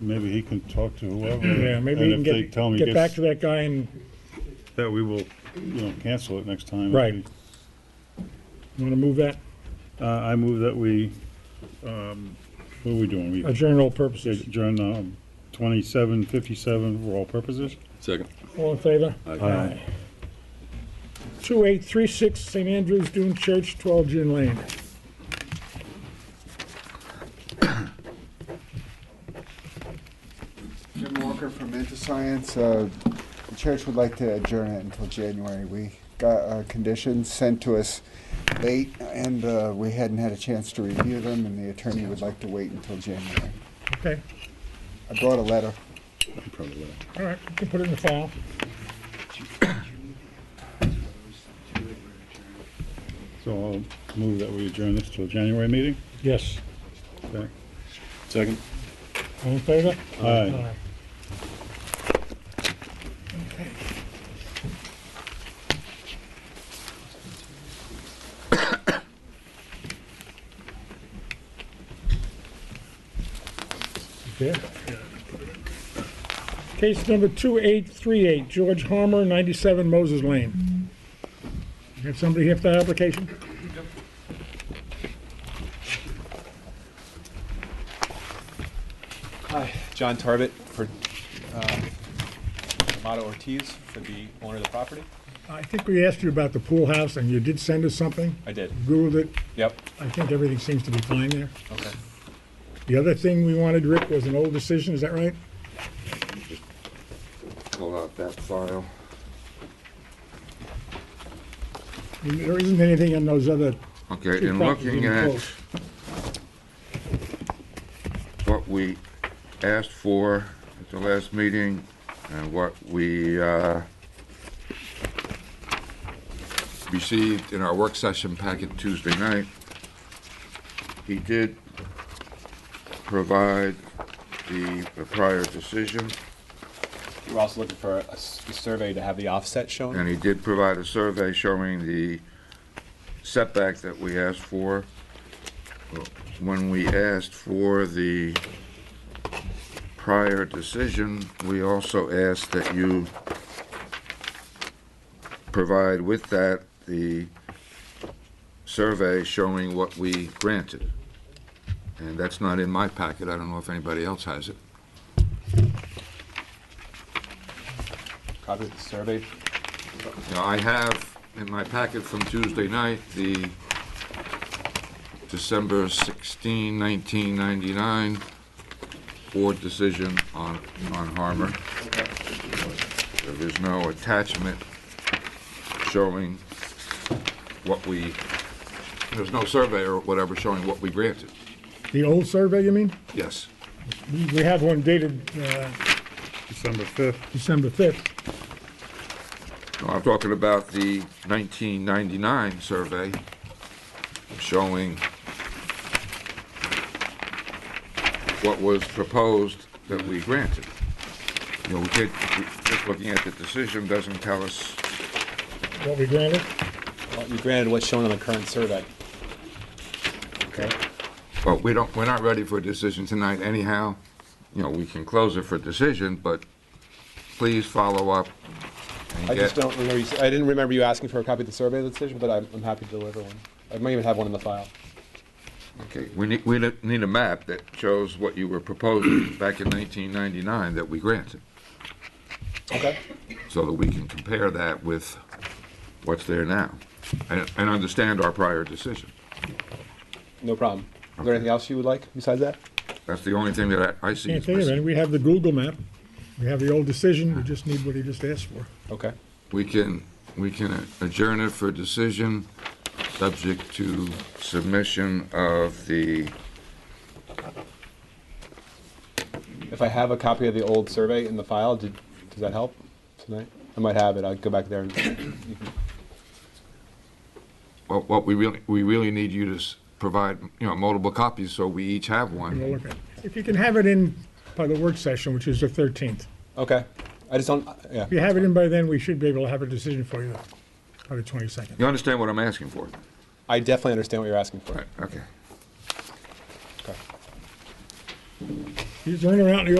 maybe he can talk to whoever. Yeah, maybe you And can if they tell him get, he get back gets, to that guy and, that we will, you know, cancel it next time. if Right. he- you wanna move that, Uh, I move that we, um, what are we doing? We adjourn all uh, purposes. adjourn, um, twenty-seven fifty-seven for all purposes? Second. All in favor? Aye. 2836 St. Andrew's Dune Church, 12 June Lane. Jim Walker from InterScience. Uh, The church would like to adjourn it until January. We got uh, conditions sent to us late, and uh, we hadn't had a chance to review them, and the attorney would like to wait until January. Okay, I brought a letter. Probably will. all right, you can put it in the file. So I'll move that we adjourn this till January meeting? Yes. Okay. Second. All in favor? Aye. Okay. Yeah. Case number 2838, George Harmer, 97 Moses Lane. You have somebody here for that application? Hi, John Tarbit for Amato Ortiz, for the owner of the property. I think we asked you about the pool house, and you did send us something. I did. Googled it. Yep. I think everything seems to be fine there. Okay. The other thing we wanted, Rick, was an old decision, is that right? pull out that file. There isn't anything in those other Okay, two in properties in looking the at close. what we asked for at the last meeting and what we, uh, received in our work session packet Tuesday night, he did provide the the prior decision. We're also looking for a s- a survey to have the offset And shown. he did provide a survey showing the setback that we asked for. When we asked for the prior decision, we also asked that you provide with that the survey showing what we granted. And that's not in my packet, I don't know if anybody else has it. Copy of the survey. Now, I have in my packet from Tuesday night, the December 16, 1999 board decision on, on Harmer. There is no attachment showing what we, there's no survey or whatever showing what we granted. The old survey, you mean? Yes. We we have one dated uh, December fifth. December 5th. No, I'm talking about the 1999 survey showing what was proposed that we granted. You know, we did, we- just looking at the decision doesn't tell us, What we granted? Well, You granted what's shown on the current survey. Okay. well, we don't, we're not ready for a decision tonight anyhow. You know, we can close it for decision, but please follow up and I just get, don't remember, you s- I didn't remember you asking for a copy of the survey of the decision, but I'm I'm happy to deliver one. I might even have one in the file. okay, we need, we need a map that shows what you were proposing back in 1999 that we granted. Okay. so that we can compare that with what's there now and, and understand our prior decision. No problem. Is there anything else you would like besides that? That's the only thing that I, I see Can't think is of any. missing. We have the Google map. We have the old decision, we just need what he just asked for. Okay. We can, we can adjourn it for decision, subject to submission of the, If I have a copy of the old survey in the file, did, does that help tonight? I might have it. I'll go back there and you can what, what we really, we really need you to s- provide, you know, multiple copies, so we each have We'll one. look at it. If you can have it in by the work session, which is the 13th. Okay. I just don't, yeah. If you have it in by then, we should be able to have a decision for you by the 22nd. You understand what I'm asking for? I definitely understand what you're asking for. Right, okay. Okay. He's running around in the